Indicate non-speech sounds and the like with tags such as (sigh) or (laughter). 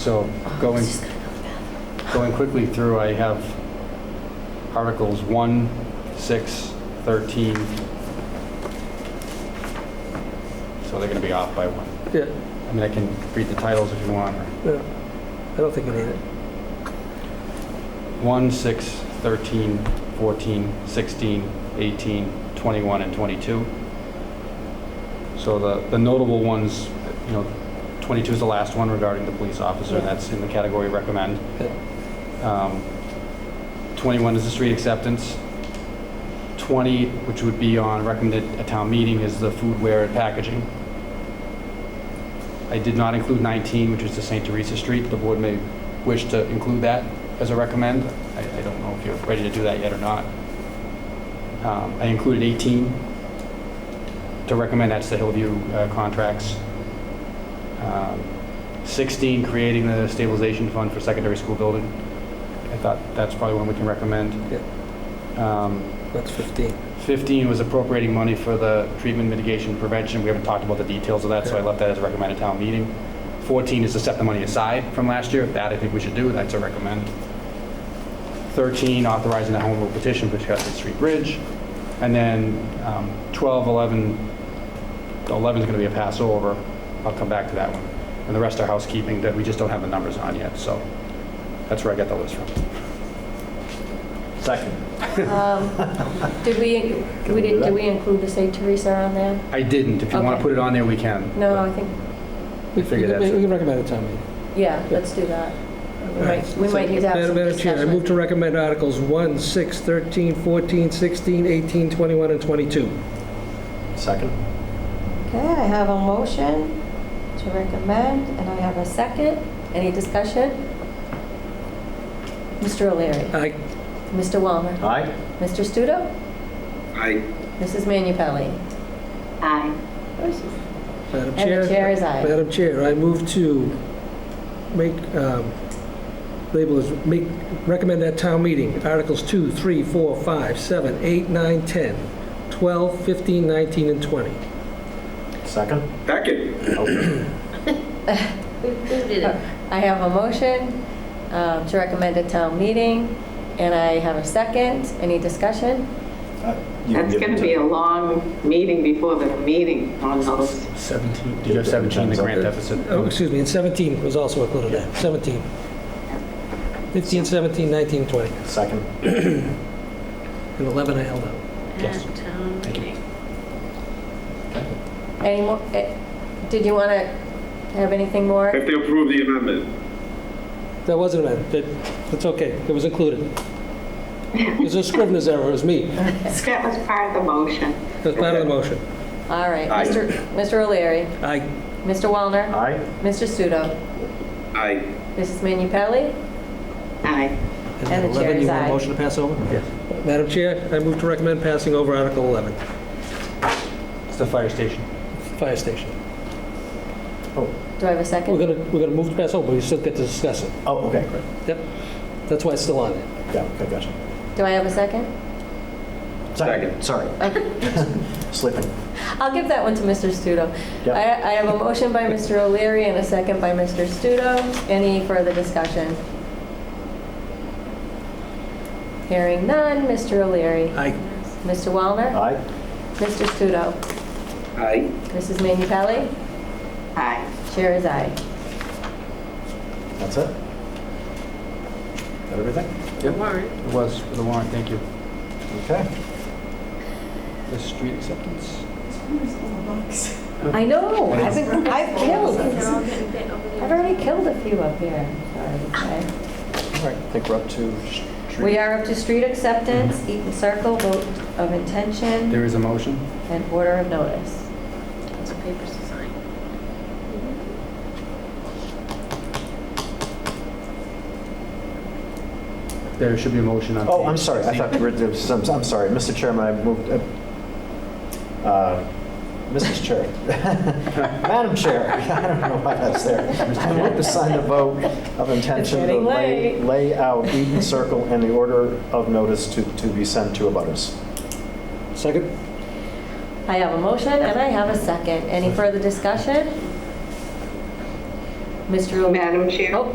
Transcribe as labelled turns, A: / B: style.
A: So going, going quickly through, I have Articles 1, 6, 13. So they're going to be off by one.
B: Yeah,
A: I mean, I can read the titles if you want.
B: yeah. I don't think you need it.
A: 1, 6, 13, 14, 16, 18, 21, and 22. So the the notable ones, you know, 22 is the last one regarding the police officer, and that's in the category recommend. Um, 21 is the street acceptance. 20, which would be on recommended at town meeting, is the foodware and packaging. I did not include 19, which is the St. Teresa Street. The board may wish to include that as a recommend. I I don't know if you're ready to do that yet or not. Um, I included 18 to recommend, that's the Hillview uh, contracts. Um, 16, creating the stabilization fund for secondary school building. I thought that's probably one we can recommend. Um,
B: That's 15.
A: 15 was appropriating money for the treatment mitigation prevention. We haven't talked about the details of that, so I left that as a recommended town meeting. 14 is to set the money aside from last year. That I think we should do, that's a recommend. 13, authorizing the home rule petition for Chestnut Street Bridge. And then um, 12, 11, 11 is going to be a pass over. I'll come back to that one. And the rest are housekeeping that we just don't have the numbers on yet, so that's where I got the list from.
C: Second.
D: Um, Did we,
C: Can we
D: we
C: do
D: did,
C: that?
D: did we include the St. Teresa on there?
A: I didn't. If you want to
D: Okay.
A: put it on there, we can.
D: No, I think,
B: We
A: figure
B: we-
A: that's
B: We
A: it.
B: can recommend a town meeting.
D: yeah, let's do that. We might, we
B: So,
D: might need to have
B: Madam-
D: some
B: Madam Chair, I move
D: discussion.
B: to recommend Articles 1, 6, 13, 14, 16, 18, 21, and 22.
C: Second.
D: Okay, I have a motion to recommend, and I have a second. Any discussion? Mr. O'Leary,
B: Aye.
D: Mr. Walmer,
C: Aye?
D: Mr. Studo,
C: Aye.
D: Mrs. Manu Pelli. Aye.
B: Madam
D: And the chair is aye.
B: Madam Chair, I move to make, um, label as, make, recommend at town meeting, Articles 2, 3, 4, 5, 7, 8, 9, 10, 12, 15, 19, and 20.
C: Second?
D: I have a motion um, to recommend a town meeting, and I have a second. Any discussion?
C: Uh,
E: That's going to be a long meeting before the meeting on those.
A: 17, you have 17, the grant deficit?
B: Oh, excuse me, and 17 was also included there, 17. 15, 17, 19, 20,
C: Second.
B: and 11 I held out.
A: Yes. Thank you.
D: Any more, eh, did you want to have anything more?
F: If they approve the amendment.
B: That wasn't meant, that, that's okay, it was included. It was a scrivener's error, it was me, it
E: That was part of the motion.
B: was part of the motion.
D: All right, Mr. Mr. O'Leary,
B: I,
D: Mr. Wallner,
C: Aye?
D: Mr. Studo,
F: Aye.
D: Mrs. Manu Pelli,
E: Aye.
B: and
D: And the
B: then
D: chair
B: 11,
D: is
B: you want a
D: aye.
B: motion to pass over? Yes. Madam Chair, I move to recommend passing over Article 11,
A: It's the fire station.
B: fire station.
D: do I have a
B: We're
D: second?
B: gonna, we're gonna move to pass over, but we still get to discuss it.
C: Oh, okay, great.
B: Yep, that's why it's still on there.
C: Yeah, okay, gotcha.
D: Do I have a second?
C: Second,
E: (laughs)
C: sorry. Slipping.
D: I'll give that one to Mr. Studo.
C: Yeah.
D: I I have a motion by Mr. O'Leary and a second by Mr. Studo. Any further discussion? Hearing none, Mr. O'Leary,
B: I,
D: Mr. Wallner,
C: Aye?
D: Mr. Studo,
F: Aye.
D: Mrs. Manu Pelli,
E: Aye.
D: chair is aye.
C: That's it? That everything?
A: It was for the warrant, thank you.
C: Okay.
A: The street acceptance?
D: I know, I've been, I've killed. I've already killed a few up here, sorry. to say.
C: All right, I think we're up to street.
D: We are up to street acceptance, Eaton Circle, vote of intention,
A: There is a motion?
D: and order of notice.
A: There should be a motion on.
C: Oh,
A: page
C: I'm sorry, I
A: 16.
C: thought, we were- there was some- I'm sorry, Mr. Chairman, I moved, uh, uh, Mrs. Chair. (laughs) Madam Chair, (laughs) I don't know why that's there. I moved to sign the vote of intention to
D: getting
C: lay
D: late.
C: lay out Eden Circle and the order of notice to to be sent to abutters.
B: second?
D: I have a motion and I have a second. Any further discussion? Mr. O'Leary?
E: Madam Chair?
D: Oh,